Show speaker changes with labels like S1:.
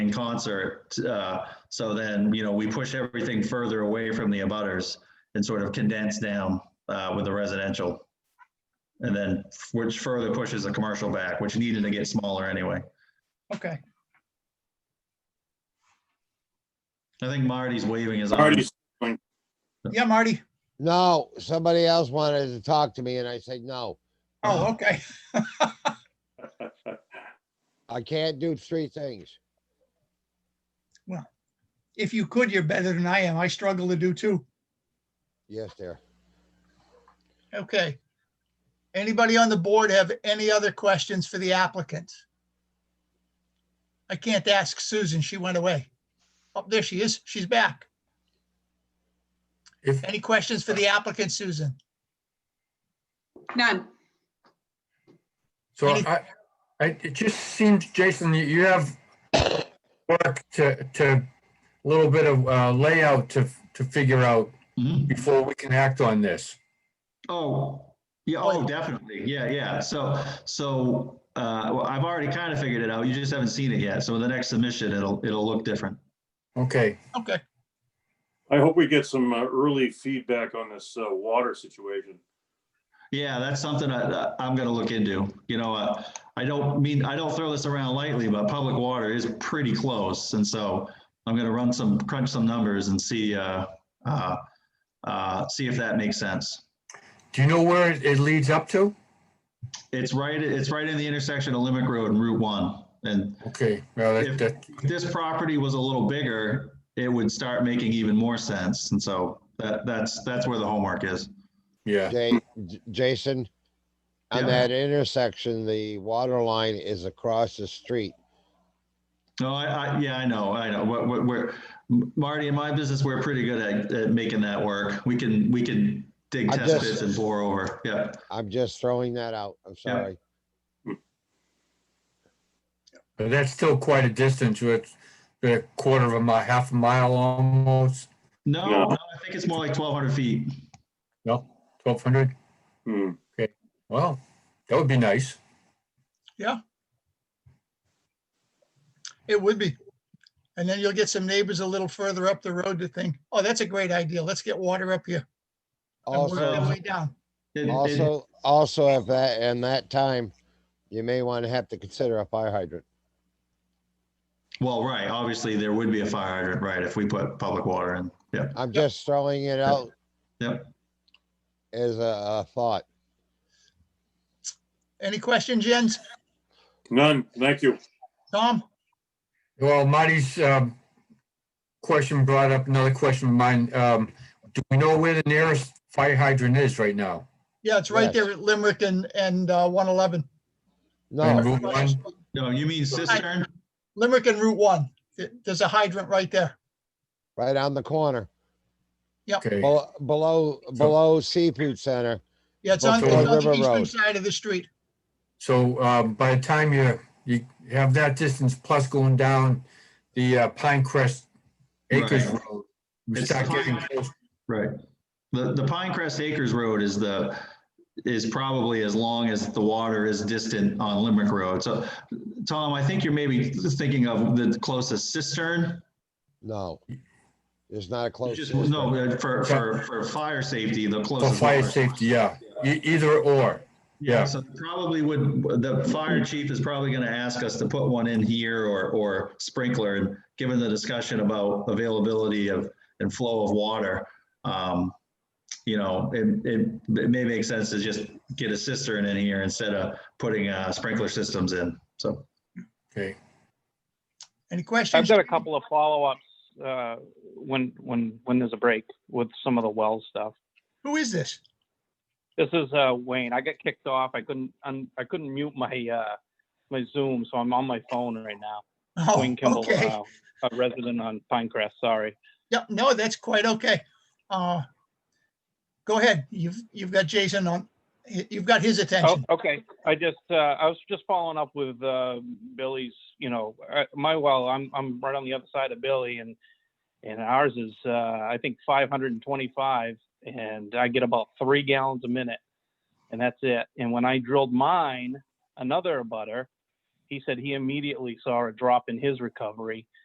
S1: in concert. Uh, so then, you know, we push everything further away from the abutters and sort of condense down uh, with the residential. And then which further pushes the commercial back, which needed to get smaller anyway.
S2: Okay,
S1: I think Marty's waving his arm.
S3: Marty's,
S2: yeah, Marty.
S4: No, somebody else wanted to talk to me and I said, no,
S2: Oh, okay.
S4: I can't do three things.
S2: If you could, you're better than I am. I struggle to do too.
S4: Yes, there.
S2: Okay. Anybody on the board have any other questions for the applicant? I can't ask Susan. She went away. Oh, there she is. She's back.
S3: If-
S2: Any questions for the applicant, Susan?
S5: None.
S3: so
S2: Any-
S3: I, I, it just seems, Jason, you- you have work to, to, a little bit of uh, layout to, to figure out
S1: Mhm.
S3: before we can act on this.
S1: Oh, yeah, oh, definitely. Yeah, yeah. So, so, uh, well, I've already kind of figured it out. You just haven't seen it yet. So the next submission, it'll, it'll look different.
S3: Okay,
S2: Okay,
S6: I hope we get some uh, early feedback on this uh, water situation.
S1: Yeah, that's something I, I'm gonna look into. You know, uh, I don't mean, I don't throw this around lightly, but public water is pretty close. And so I'm gonna run some, crunch some numbers and see, uh, uh, uh, see if that makes sense.
S3: do you know where it it leads up to?
S1: It's right, it's right in the intersection of Limerick Road and Route One. And
S3: Okay, well, that, that,
S1: if this property was a little bigger, it would start making even more sense. And so that, that's, that's where the homework is.
S3: yeah,
S4: Jay, J- Jason,
S1: Yeah.
S4: on that intersection, the water line is across the street.
S1: No, I, I, yeah, I know, I know. We're, we're- we're, Marty, in my business, we're pretty good at, at making that work. We can, we can dig
S4: I
S1: test
S4: just-
S1: pits and bore over. Yeah.
S4: I'm just throwing that out. I'm
S1: Yeah.
S4: sorry.
S3: but that's still quite a distance, it's a quarter of a mile, half a mile almost,
S1: No,
S6: Yeah.
S1: no, I think it's more like twelve hundred feet.
S3: no, twelve hundred,
S6: Hmm.
S3: well, that would be nice.
S2: it would be. And then you'll get some neighbors a little further up the road to think, oh, that's a great idea. Let's get water up here. And work
S4: Also,
S2: our way down.
S1: It- it-
S4: also, also if that, and that time, you may want to have to consider a fire hydrant.
S1: Well, right, obviously, there would be a fire hydrant, right, if we put public water in. Yeah,
S4: I'm just throwing it out
S1: yep.
S4: as a, a thought.
S2: Any question, Jens?
S6: None, thank you.
S2: Tom?
S3: Well, Marty's um, question brought up another question of mine. Um, Do we know where the nearest fire hydrant is right now?
S2: Yeah, it's right
S4: Yes.
S2: there at Limerick and, and uh, 111.
S3: And
S4: No,
S3: Route one?
S1: No, you mean cistern?
S2: Limerick and Route One. There- There's a hydrant right there.
S4: right on the corner,
S3: Okay,
S4: Bel- below, below Seafood Center.
S2: Yeah, it's on, it's
S3: Before
S2: on the
S4: River
S2: eastern
S4: Road.
S2: side of the street.
S3: so um, by the time you, you have that distance plus going down the uh, Pine Crest Acres
S1: Right.
S3: Road, we
S1: It's
S3: start
S1: the
S3: getting
S1: Pine-
S3: close.
S1: Right. The, the Pinecrest Acres Road is the, is probably as long as the water is distant on Limerick Road. So, Tom, I think you're maybe thinking of the closest cistern
S4: No. There's not a
S1: You
S4: close.
S1: just-
S4: system.
S1: No, uh, for, for, for fire safety, the
S3: For
S1: closest.
S3: fire
S1: one.
S3: safety, yeah, E- either or, yeah.
S1: So probably would, the fire chief is probably gonna ask us to put one in here or, or sprinkler. And given the discussion about availability of, and flow of water, um, you know, it, it, it may make sense to just get a cistern in here instead of putting, uh, sprinkler systems in, so.
S3: Okay,
S2: Any questions?
S7: I've got a couple of follow-ups uh, when when when there's a break with some of the well stuff.
S2: Who is this?
S7: This is uh, Wayne. I got kicked off. I couldn't un- I couldn't mute my uh, my Zoom, so I'm on my phone right now.
S2: Oh,
S7: Wayne Kimball,
S2: okay.
S7: uh, a resident on Pinecrest. Sorry.
S2: Yep, no, that's quite okay. Uh, Go ahead. You've, you've got Jason on, you've got his
S7: Oh,
S2: attention.
S7: okay. I just uh, I was just following up with uh, Billy's. You know, uh, my well. I'm I'm right on the other side of Billy, and and ours is uh, I think 525, and I get about three gallons a minute, and that's it. And when I drilled mine, another butter, he said he immediately saw a drop in his recovery,